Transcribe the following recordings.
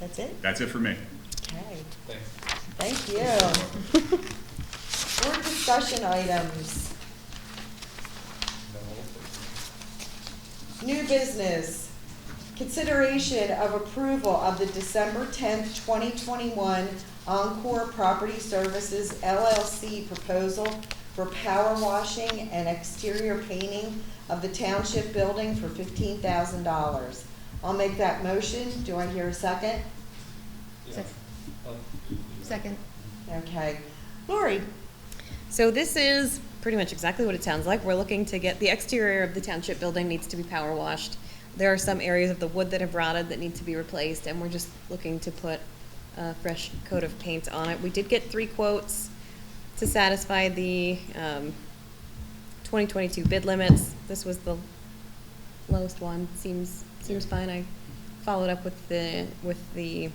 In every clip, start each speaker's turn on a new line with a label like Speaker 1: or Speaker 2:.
Speaker 1: That's it?
Speaker 2: That's it for me.
Speaker 1: Okay,
Speaker 3: Thank you.
Speaker 1: thank you. Board discussion items, new business. Consideration of approval of the December tenth, twenty twenty-one Encore Property Services LLC proposal for power washing and exterior painting of the township building for fifteen thousand dollars. I'll make that motion. Do I hear a second?
Speaker 3: Yeah.
Speaker 4: Sec-
Speaker 3: Oh,
Speaker 4: Second.
Speaker 1: Okay. Lori?
Speaker 4: So this is pretty much exactly what it sounds like. We're looking to get, the exterior of the township building needs to be power washed. There are some areas of the wood that have rotted that need to be replaced, and we're just looking to put a fresh coat of paint on it. We did get three quotes to satisfy the um, 2022 bid limits. This was the lowest one, seems, seems fine. I followed up with the, with the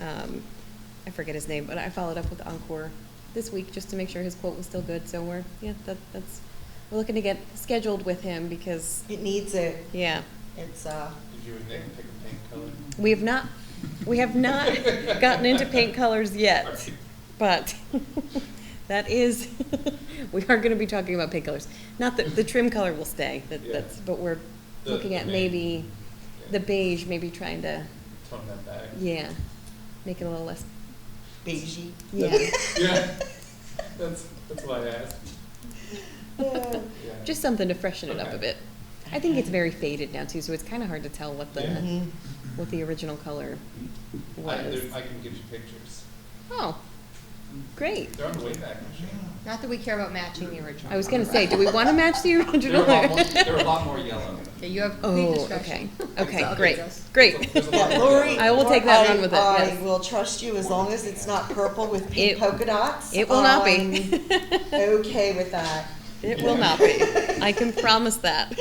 Speaker 4: um, I forget his name, but I followed up with Encore this week just to make sure his quote was still good. So we're yeah, that, that's we're looking to get scheduled with him because
Speaker 1: It needs a,
Speaker 4: yeah,
Speaker 1: it's uh, a,
Speaker 3: Did you and Nick pick a paint color?
Speaker 4: we have not we have not gotten into paint colors yet,
Speaker 3: Right.
Speaker 4: but that is we are going to be talking about paint colors. Not that the trim color will stay. That,
Speaker 3: Yeah.
Speaker 4: That's but we're
Speaker 3: The-
Speaker 4: looking
Speaker 3: the
Speaker 4: at
Speaker 3: main-
Speaker 4: maybe the
Speaker 3: Yeah.
Speaker 4: beige, maybe trying to
Speaker 3: Tone that back.
Speaker 4: yeah, make it a little less
Speaker 1: beigey.
Speaker 4: yeah.
Speaker 3: Yeah, that's, that's why I asked. Yeah.
Speaker 4: Just something to freshen it up a
Speaker 3: Okay.
Speaker 4: bit. I think it's very faded now too, so it's kind of hard to tell what the
Speaker 3: Yeah.
Speaker 1: Mhm.
Speaker 4: what the original color
Speaker 3: I,
Speaker 4: was.
Speaker 3: there- I can give you pictures.
Speaker 4: Oh, great!
Speaker 3: They're on the Wayback Machine.
Speaker 5: Not that we care about matching the original.
Speaker 4: I was gonna say, do we want to match the
Speaker 3: They're
Speaker 4: original?
Speaker 3: a lot more, they're a lot more yellow.
Speaker 5: Okay, you have complete
Speaker 4: oh, okay,
Speaker 5: discretion.
Speaker 4: okay,
Speaker 5: Okay,
Speaker 4: great,
Speaker 5: Jess.
Speaker 4: great.
Speaker 3: There's a lot
Speaker 1: Yeah,
Speaker 3: more
Speaker 1: Lori.
Speaker 3: yellow.
Speaker 4: I will take that and run with it,
Speaker 1: I-
Speaker 4: yes.
Speaker 1: I will trust you as long as it's not purple with pink
Speaker 4: It-
Speaker 1: polka dots.
Speaker 4: It will not be.
Speaker 1: I'm Okay with that.
Speaker 4: It will not be. I can promise that.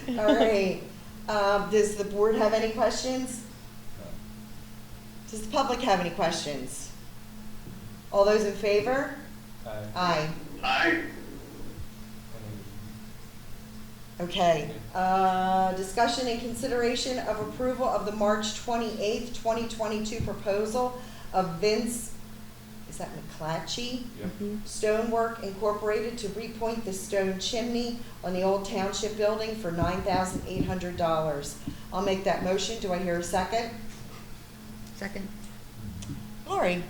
Speaker 1: Okay. All right. Um, does the board have any questions? Does the public have any questions? All those in favor?
Speaker 3: Uh,
Speaker 1: Aye.
Speaker 3: and
Speaker 1: Okay, uh, discussion and consideration of approval of the March twenty-eighth, twenty twenty-two proposal of Vince, is that McClatchy?
Speaker 3: Yep.
Speaker 4: Mhm.
Speaker 1: Stonework Incorporated to repoint the stone chimney on the old township building for nine thousand eight hundred dollars. I'll make that motion, do I hear a second?
Speaker 5: Second.
Speaker 1: Lori?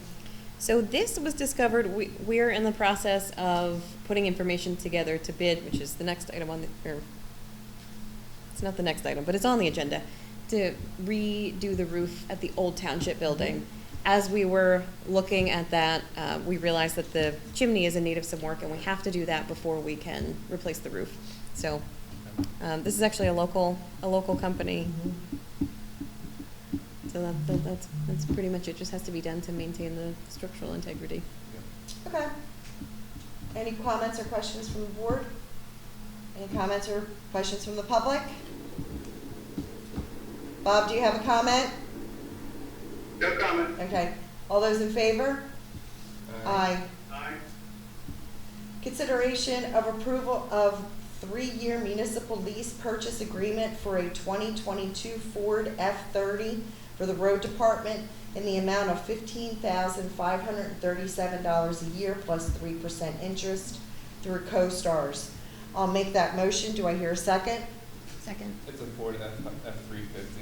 Speaker 4: So this was discovered, we, we're in the process of putting information together to bid, which is the next item on the, or, it's not the next item, but it's on the agenda, to redo the roof at the old township building. As we were looking at that, uh, we realized that the chimney is in need of some work, and we have to do that before we can replace the roof. So, um, this is actually a local, a local company,
Speaker 1: Mm-hmm.
Speaker 4: so that, that, that's, that's pretty much it, just has to be done to maintain the structural integrity.
Speaker 1: Okay. Any comments or questions from the board? Any comments or questions from the public? Bob, do you have a comment?
Speaker 6: No comment.
Speaker 1: Okay. All those in
Speaker 3: Yep.
Speaker 1: favor?
Speaker 3: Uh,
Speaker 1: Aye.
Speaker 6: Aye.
Speaker 1: Consideration of approval of three-year municipal lease purchase agreement for a 2022 Ford F-30 for the road department in the amount of $15,537 a year plus 3% interest through CoStarz. I'll make that motion. Do I hear a second?
Speaker 5: Second.
Speaker 3: It's a Ford F, F three fifty.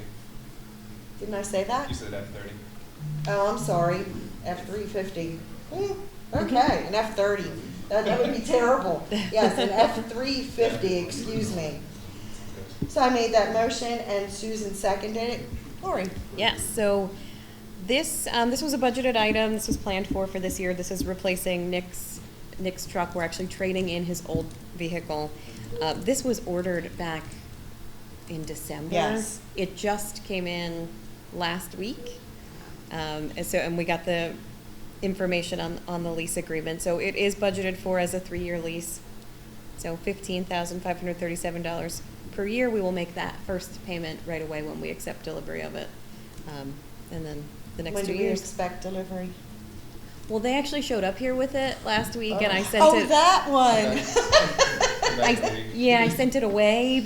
Speaker 1: Didn't I say that?
Speaker 3: You said F thirty.
Speaker 1: Oh, I'm sorry, F three fifty. Hmm, Okay, an F thirty. That, that would be terrible. Yes, an F three fifty, excuse me. So I made that motion and Susan seconded it. Lori?
Speaker 4: Yes, so this, um, this was a budgeted item, this was planned for for this year, this is replacing Nick's, Nick's truck, we're actually trading in his old vehicle. Uh, this was ordered back in December.
Speaker 1: Yes.
Speaker 4: It just came in last week, um, and so, and we got the information on, on the lease agreement, so it is budgeted for as a three-year lease. So fifteen thousand five hundred thirty-seven dollars per year, we will make that first payment right away when we accept delivery of it. Um, and then the next two
Speaker 1: When do we
Speaker 4: years.
Speaker 1: expect delivery?
Speaker 4: Well, they actually showed up here with it last week and I sent
Speaker 1: Oh,
Speaker 4: it.
Speaker 1: that one.
Speaker 3: Back to
Speaker 4: I,
Speaker 3: me.
Speaker 4: yeah, I sent it away